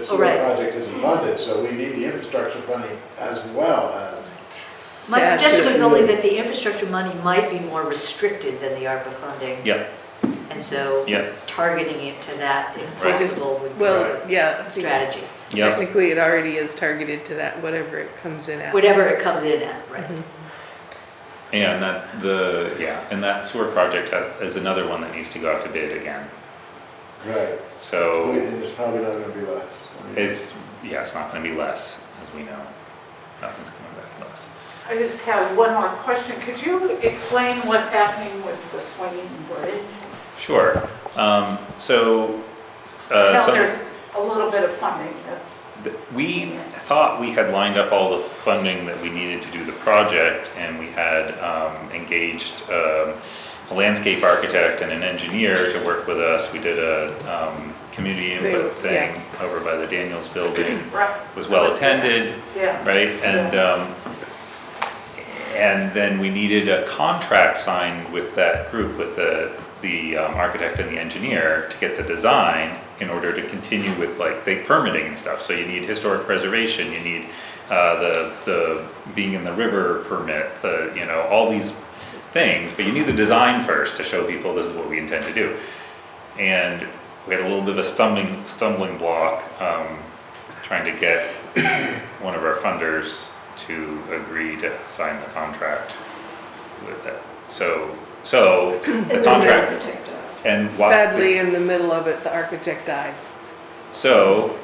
The Oh, sewer right. project isn't funded, so we need the infrastructure funding as well as, My That's suggestion was it. only that the infrastructure money might be more restricted than the ARPA funding. Yeah, And so yeah, targeting it to that, if Right. possible, would be Well, a yeah, I think strategy. yeah. technically it already is targeted to that, whatever it comes in at. Whatever it comes in at, right? Mm-hmm. And that, the, yeah, and that sewer project ha- is another one that needs to go out to bid again. right. So And it's probably not gonna be less. I mean, it's, yeah, it's not gonna be less, as we know. Nothing's coming back less. I just have one more question. Could you explain what's happening with the swinging bridge? Sure, um, so, I uh, know some- there's a little bit of funding. that- th- we thought we had lined up all the funding that we needed to do the project, and we had, um, engaged, um, a landscape architect and an engineer to work with us. We did a, um, community input They- yeah. thing over by the Daniels Building. right? was well attended, Yeah. right? And, um, and then we needed a contract signed with that group, with the, the um, architect and the engineer to get the design in order to continue with like the permitting and stuff. So you need historic preservation, you need, uh, the, the being in the river permit, the, you know, all these things, but you need the design first to show people this is what we intend to do. And we had a little bit of a stumbling, stumbling block, um, trying to get one of our funders to agree to sign the contract with that. So, so the contract and what? Sadly, in the middle of it, the architect died. So,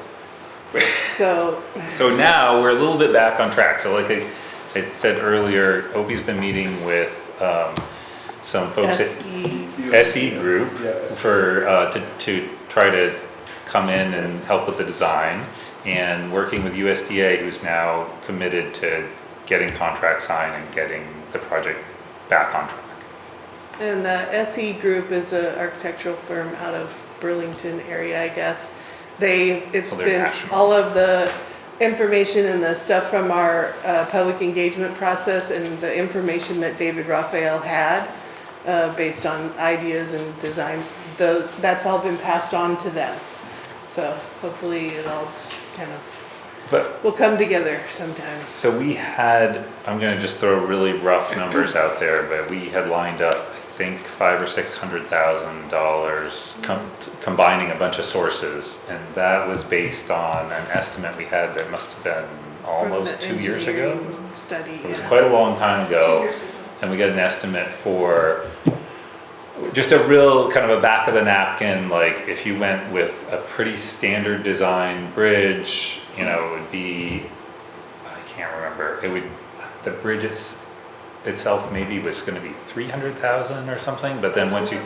So, so now we're a little bit back on track. So like I, I said earlier, Opie's been meeting with, um, some folks at SE, SE E group Yeah. for, uh, to, to try to come in and help with the design and working with USDA, who's now committed to getting contract signed and getting the project back on track. and the SE Group is an architectural firm out of Burlington area, I guess. They, it's Well, they're been, national. all of the information and the stuff from our uh, public engagement process and the information that David Raphael had, uh, based on ideas and design, those, that's all been passed on to them. So hopefully it all just kind of But We'll come together sometime. So we had, I'm gonna just throw really rough numbers out there, but we had lined up, I think, five or six hundred thousand dollars com- combining a bunch of sources. And that was based on an estimate we had that must have been from almost the two years ago. engineering Study. It was yeah. quite a long time ago. And we got an estimate for just a real kind of a back of the napkin, like if you went with a pretty standard design bridge, you know, it would be, I can't remember, it would, the bridge its- itself maybe was gonna be three hundred thousand or something, but then once you.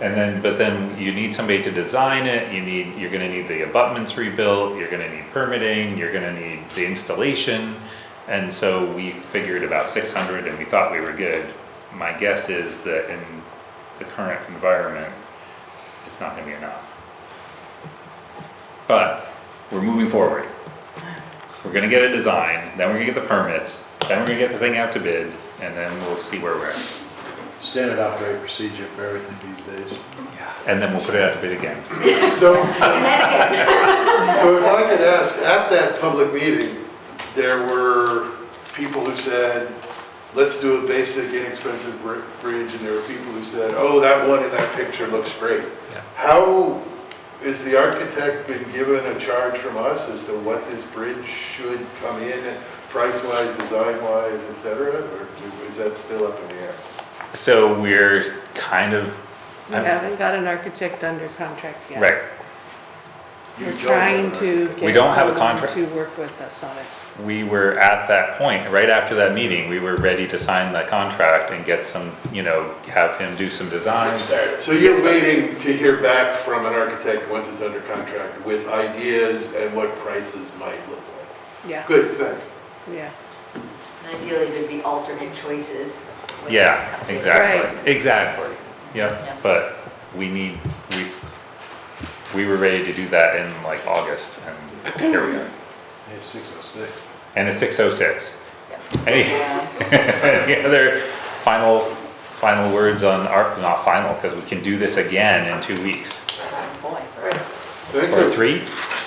And then, but then you need somebody to design it, you need, you're gonna need the abutments rebuilt, you're gonna need permitting, you're gonna need the installation. And so we figured about six hundred and we thought we were good. My guess is that in the current environment, it's not gonna be enough. But we're moving forward. We're gonna get a design, then we're gonna get the permits, then we're gonna get the thing out to bid, and then we'll see where we're at. Standard operating procedure for everything these days. And then we'll put it out to bid again. So, so if I could ask, at that public meeting, there were people who said, let's do a basic inexpensive br- bridge, and there were people who said, oh, that one in that picture looks great. Yeah. How, is the architect been given a charge from us as to what this bridge should come in, at, price-wise, design-wise, et cetera? Or do- is that still up in the air? So we're kind of, We I'm- haven't got an architect under contract yet. right, You We're don't trying know. to We get don't have a someone contract. to work with us on it. we were at that point, right after that meeting, we were ready to sign the contract and get some, you know, have him do some designs. So you're waiting to hear back from an architect once it's under contract with ideas and what prices might look like? Yeah, Good, thanks. yeah. And Ideally, there'd be alternate choices. when that Yeah, comes in. Right. exactly, exactly, Yeah. yeah, but we need, we, we were ready to do that in like August, and here we are. It's six oh six. And it's six oh six. Any, any other final, final words on our, not final, because we can do this again in two weeks, That's my point. Thank or you. three?